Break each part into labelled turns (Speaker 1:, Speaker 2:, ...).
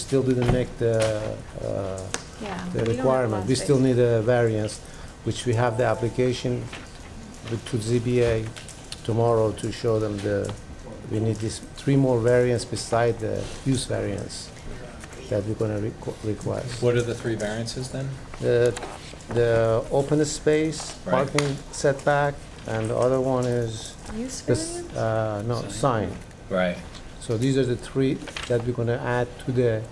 Speaker 1: still didn't make the, uh,
Speaker 2: Yeah.
Speaker 1: the requirement. We still need a variance, which we have the application with- to ZBA tomorrow to show them the, we need this three more variants beside the use variance that we're gonna requ- request.
Speaker 3: What are the three variances then?
Speaker 1: The, the open space,
Speaker 3: Right.
Speaker 1: parking setback, and the other one is
Speaker 2: Use
Speaker 1: this,
Speaker 2: variance?
Speaker 1: uh, no, sign.
Speaker 3: Right.
Speaker 1: So these are the three that we're gonna add to the,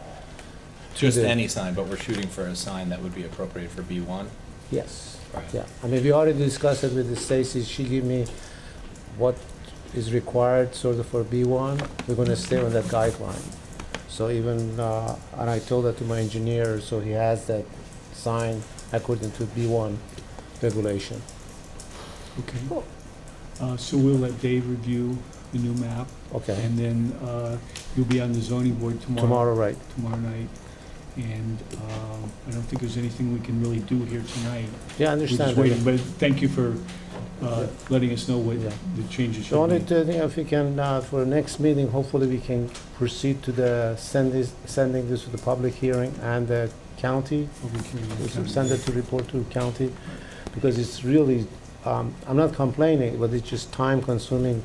Speaker 3: Just
Speaker 1: the-
Speaker 3: any sign, but we're shooting for a sign that would be appropriate for B1?
Speaker 1: yes.
Speaker 3: Right.
Speaker 1: Yeah, I mean, we already discussed it with the Stacy, she gave me what is required sort of for B1, we're gonna stay on that guideline. So even, uh, and I told that to my engineer, so he has that sign according to B1 regulation.
Speaker 4: Okay.
Speaker 2: Cool.
Speaker 4: Uh, So we'll let Dave review the new map,
Speaker 1: Okay,
Speaker 4: and then uh, you'll be on the zoning board tomorrow,
Speaker 1: tomorrow, right,
Speaker 4: tomorrow night. And um, I don't think there's anything we can really do here tonight.
Speaker 1: yeah, I
Speaker 4: We're just
Speaker 1: understand.
Speaker 4: waiting, but thank you for uh, letting us know what
Speaker 1: Yeah.
Speaker 4: the changes
Speaker 1: The
Speaker 4: you
Speaker 1: only
Speaker 4: made.
Speaker 1: thing, if we can, uh, for next meeting, hopefully we can proceed to the, send this, sending this to the public hearing and the county,
Speaker 4: Public hearing
Speaker 1: We'll
Speaker 4: on
Speaker 1: send it to report to county, because it's really, um, I'm not complaining, but it's just time consuming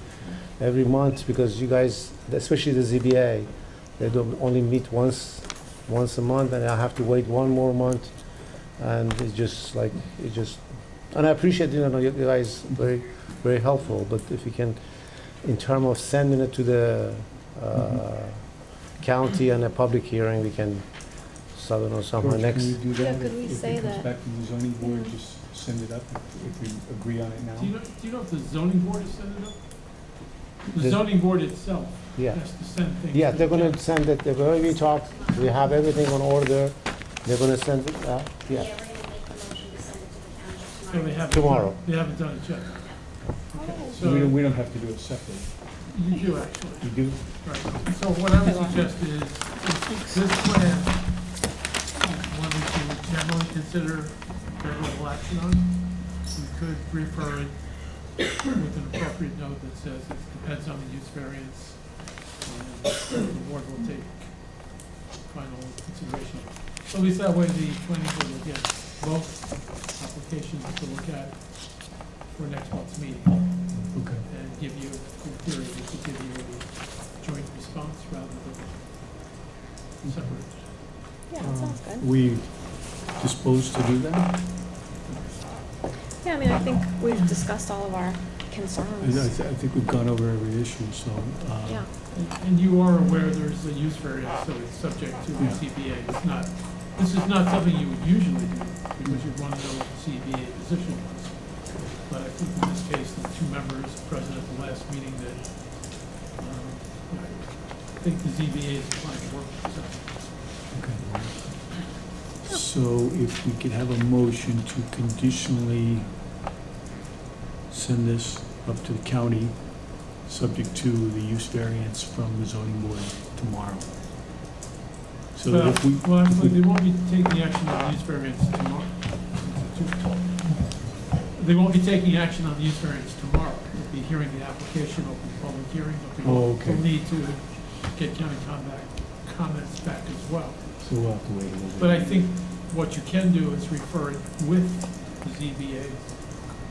Speaker 1: every month, because you guys, especially the ZBA, they don't only meet once, once a month, and I have to wait one more month, and it's just like, it just, and I appreciate, you know, you guys very, very helpful, but if you can, in term of sending it to the, uh, county and a public hearing, we can, so I don't know, somehow
Speaker 4: George, can
Speaker 1: next.
Speaker 4: we do that?
Speaker 2: Yeah, could we
Speaker 4: If-
Speaker 2: say
Speaker 4: If it
Speaker 2: that?
Speaker 4: comes back from the zoning board,
Speaker 2: Yeah.
Speaker 4: just send it up if- if we agree on it now.
Speaker 5: Do you know, do you know if the zoning board has set it up?
Speaker 1: The-
Speaker 5: The zoning board itself
Speaker 1: Yeah.
Speaker 5: has to send things.
Speaker 1: Yeah,
Speaker 5: to
Speaker 1: they're
Speaker 5: the
Speaker 1: gonna
Speaker 5: town.
Speaker 1: send it, they've already talked, we have everything on order, they're gonna send it, uh,
Speaker 6: Yeah,
Speaker 1: yeah,
Speaker 6: we're gonna make the motion to send it to the township
Speaker 5: So
Speaker 6: tomorrow.
Speaker 5: they haven't.
Speaker 1: Tomorrow.
Speaker 5: They haven't done it yet.
Speaker 4: So We don't,
Speaker 5: So
Speaker 4: we don't have to do it separate.
Speaker 5: you do actually,
Speaker 4: We do?
Speaker 5: right. So what I would suggest is, is this plan, one which you would generally consider favorable action on, we could refer it with an appropriate note that says it depends on the use variance. and The board will take final consideration. So At least that way the planning board will get both applications to look at for next month's meeting
Speaker 4: Okay.
Speaker 5: and give you, in theory, we could give you a joint response rather than separate.
Speaker 2: Yeah, that sounds
Speaker 1: Mm.
Speaker 2: good.
Speaker 4: We disposed to do that?
Speaker 2: Yeah, I mean, I think we've discussed all of our
Speaker 4: I know, I
Speaker 2: concerns.
Speaker 4: thi- I think we've gone over every issue, so. uh,
Speaker 2: Yeah,
Speaker 5: And- And you are aware there's a use variance, so it's subject to the
Speaker 4: Yeah.
Speaker 5: CBA. It's not, this is not something you would usually do, because you'd want to know what the CBA position was. But I think in this case, the two members present at the last meeting that, um, I think the ZBA is applying to work, so.
Speaker 4: okay. So if we could have a motion to conditionally send this up to the county, subject to the use variance from the zoning board tomorrow. So that if we,
Speaker 5: Well, actually, they won't be taking action on the use variance tomorrow. They won't be taking action on the use variance tomorrow. They'll be hearing the application, open the public hearing, but they
Speaker 4: Oh,
Speaker 5: will
Speaker 4: okay.
Speaker 5: will need to get county contact, comments back as well.
Speaker 4: so we'll have to wait a little bit.
Speaker 5: But I think what you can do is refer it with the
Speaker 1: the
Speaker 5: ZBA.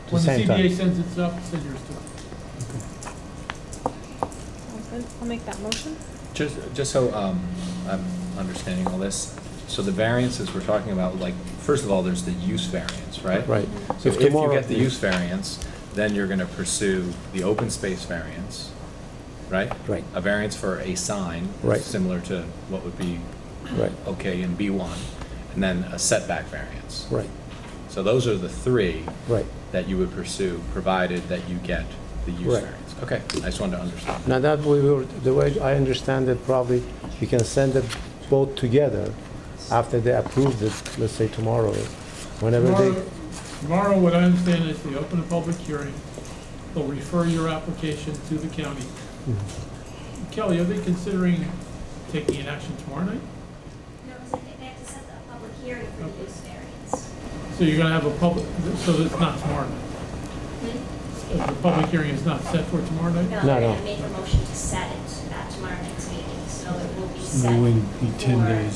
Speaker 5: When the
Speaker 1: same time.
Speaker 5: ZBA sends it up, send yours to us.
Speaker 2: sounds good. I'll make that motion.
Speaker 3: Just, just so um, I'm understanding all this, so the variances we're talking about, like, first of all, there's the use variance, right?
Speaker 1: right.
Speaker 3: So if you
Speaker 1: tomorrow-
Speaker 3: get the use variance, then you're gonna pursue the open space variance, right?
Speaker 1: Right,
Speaker 3: A variance for a sign.
Speaker 1: Right.
Speaker 3: Similar to what would be
Speaker 1: right,
Speaker 3: okay in B1, and then a setback variance.
Speaker 1: right,
Speaker 3: So those are the three
Speaker 1: right.
Speaker 3: that you would pursue, provided that you get the use
Speaker 1: Right.
Speaker 3: variance. Okay, I just wanted to understand.
Speaker 1: Now that we were, the way I understand it, probably we can send them both together after they approve it, let's say tomorrow, whenever
Speaker 5: Tomorrow,
Speaker 1: they,
Speaker 5: tomorrow, what I understand is they open a public hearing, they'll refer your application to the county. Kelly, are they considering taking an action tomorrow night?
Speaker 6: No, because I think they have to set a public hearing for the use variance.
Speaker 5: So you're gonna have a public, so it's not tomorrow night? The public hearing is not set for tomorrow night?
Speaker 6: No,
Speaker 1: No,
Speaker 6: they're
Speaker 1: no.
Speaker 6: gonna make a motion to set it at tomorrow next meeting, so it will be set.
Speaker 4: It would be 10
Speaker 6: for
Speaker 4: days.